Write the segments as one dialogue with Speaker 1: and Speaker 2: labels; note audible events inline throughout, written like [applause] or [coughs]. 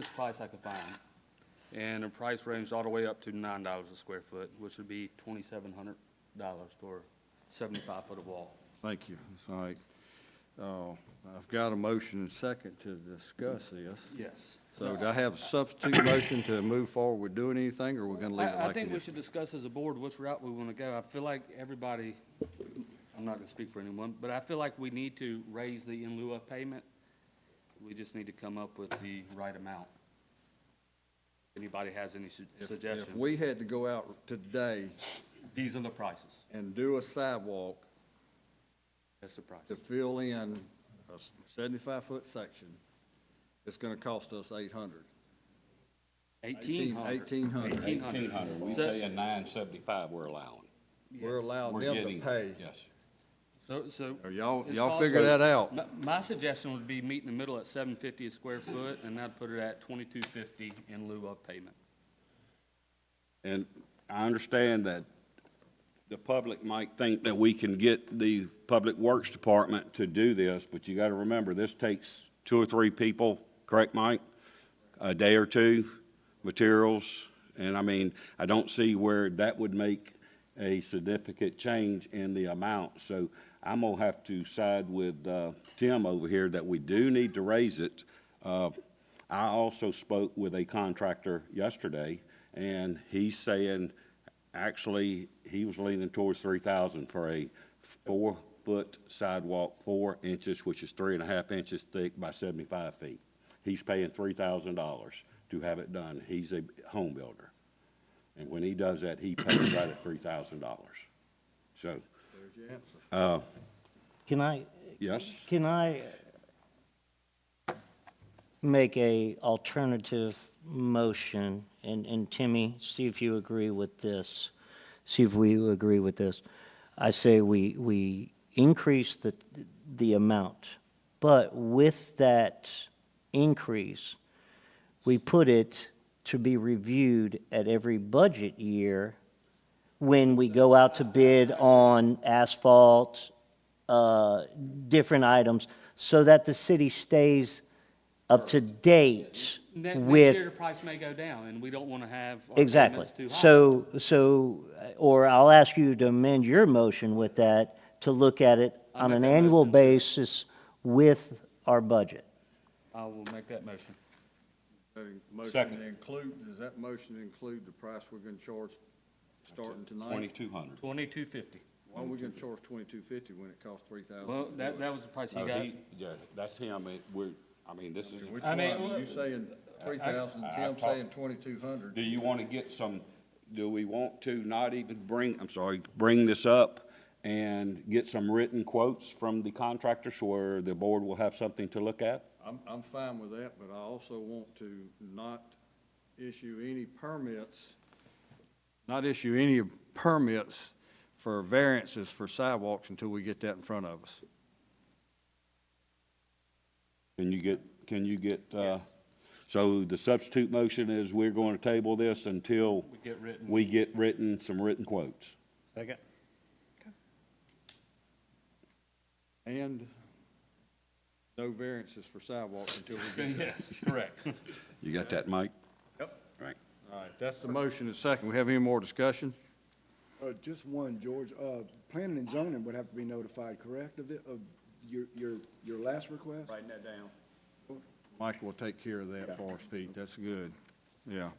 Speaker 1: This price I could find, and the price ranged all the way up to nine dollars a square foot, which would be twenty-seven hundred dollars for seventy-five foot of wall.
Speaker 2: Thank you. It's all right. Uh, I've got a motion and second to discuss this.
Speaker 1: Yes.
Speaker 2: So do I have a [coughs] substitute motion to move forward with doing anything, or we're gonna leave it
Speaker 1: I, I
Speaker 2: like
Speaker 1: think
Speaker 2: it
Speaker 1: we
Speaker 2: is?
Speaker 1: should discuss as a board which route we want to go. I feel like everybody, I'm not going to speak for anyone, but I feel like we need to raise the in lieu of payment. We just need to come up with the right amount. Anybody has any su-
Speaker 2: If
Speaker 1: suggestions?
Speaker 2: we had to go out today
Speaker 1: These are the prices.
Speaker 2: and do a sidewalk
Speaker 1: That's the price.
Speaker 2: to fill in a seventy-five foot section, it's gonna cost us eight hundred.
Speaker 1: Eighteen hundred.
Speaker 2: Eighteen hundred.
Speaker 3: Eighteen hundred, we
Speaker 1: So-
Speaker 3: pay a nine seventy-five we're allowing.
Speaker 2: We're allowing
Speaker 3: We're
Speaker 2: them to
Speaker 3: getting,
Speaker 2: Oh, pay.
Speaker 3: yes.
Speaker 1: So, so.
Speaker 2: Or Y'all,
Speaker 1: it's
Speaker 2: y'all
Speaker 1: also-
Speaker 2: figure that out.
Speaker 1: My, my suggestion would be meet in the middle at seven fifty a square foot, and I'd put it at twenty-two fifty in lieu of payment.
Speaker 3: And I understand that the public might think that we can get the Public Works Department to do this, but you gotta remember, this takes two or three people, correct, Mike? A day or two, materials, and I mean, I don't see where that would make a significant change in the amount, so I'm gonna have to side with, uh, Tim over here that we do need to raise it. Uh, I also spoke with a contractor yesterday, and he's saying, actually, he was leaning towards three thousand for a four-foot sidewalk, four inches, which is three and a half inches thick by seventy-five feet. He's paying three thousand dollars to have it done. He's a home builder. And when he does that, he pays right at three thousand dollars. So,
Speaker 4: Can I,
Speaker 3: yes,
Speaker 4: can I make a alternative motion? And, and Timmy, see if you agree with this. See if we agree with this. I say we, we increase the, the amount, but with that increase, we put it to be reviewed at every budget year when we go out to bid on asphalt, uh, different items, so that the city stays up to date
Speaker 1: Ne- Next year, the
Speaker 4: with,
Speaker 1: price may go down, and we don't want to have. our
Speaker 4: exactly.
Speaker 1: payments too high.
Speaker 4: So, so, uh, or I'll ask you to amend your motion with that, to look at it
Speaker 1: I'll
Speaker 4: on
Speaker 1: make
Speaker 4: an
Speaker 1: that
Speaker 4: annual
Speaker 1: motion.
Speaker 4: basis with our budget.
Speaker 1: I will make that motion.
Speaker 2: Motion
Speaker 3: Second.
Speaker 2: to include, does that motion include the price we're gonna charge starting tonight?
Speaker 3: twenty-two hundred.
Speaker 1: Twenty-two fifty.
Speaker 2: Why are we gonna charge twenty-two fifty when it costs three thousand?
Speaker 1: Well, that, that was the price
Speaker 3: Oh,
Speaker 1: he got.
Speaker 3: Uh, Yeah, that's him. It- We're, I mean, this is.
Speaker 2: Which
Speaker 1: I mean,
Speaker 2: one?
Speaker 1: well-
Speaker 2: You saying three thousand,
Speaker 3: I- I
Speaker 2: Tim
Speaker 3: talked-
Speaker 2: saying twenty-two hundred?
Speaker 3: Do you want to get some, do we want to not even bring, I'm sorry, bring this up and get some written quotes from the contractors where the board will have something to look at?
Speaker 2: I'm, I'm fine with that, but I also want to not issue any permits, not issue any permits for variances for sidewalks until we get that in front of us.
Speaker 3: Can you get, can you get, uh, so the substitute motion is we're going to table this until
Speaker 1: We get written.
Speaker 3: we get written, some written quotes.
Speaker 1: Second.
Speaker 2: And no variances for sidewalks until we
Speaker 1: [laughs]
Speaker 2: get that.
Speaker 1: Yes, correct.
Speaker 3: You got that, Mike?
Speaker 1: Yep.
Speaker 3: Right.
Speaker 2: All right, that's the motion and second. We have any more discussion?
Speaker 5: Uh, just one, George. Uh, planning and zoning would have to be notified, correct, of the, of your, your, your last request? Right.
Speaker 2: Mike will take care of that for us, Pete. That's good. Yeah.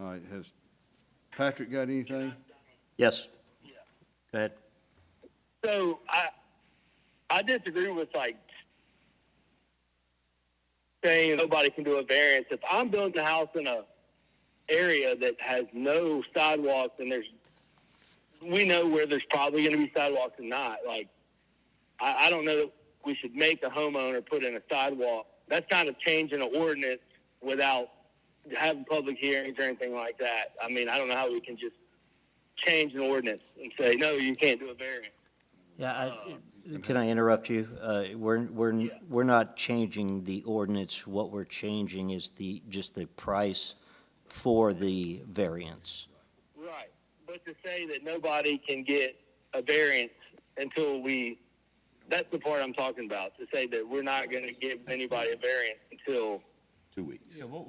Speaker 2: All right, has Patrick got anything?
Speaker 4: Yes. Go ahead.
Speaker 6: So I I disagree with like saying nobody can do a variance. If I'm building a house in a area that has no sidewalks and there's we know where there's probably going to be sidewalks and not like I, I don't know that we should make a homeowner put in a sidewalk. That's not a change in an ordinance without having public hearings or anything like that. I mean, I don't know how we can just change an ordinance and say no, you can't do a variance.
Speaker 4: Yeah, I, can I interrupt you? Uh, we're, we're, we're not changing the ordinance. What we're changing is the, just the price for the variance.
Speaker 6: Right. But to say that nobody can get a variance until we, that's the part I'm talking about, to say that we're not going to give anybody a variance until
Speaker 3: Two weeks.
Speaker 1: Yeah, what,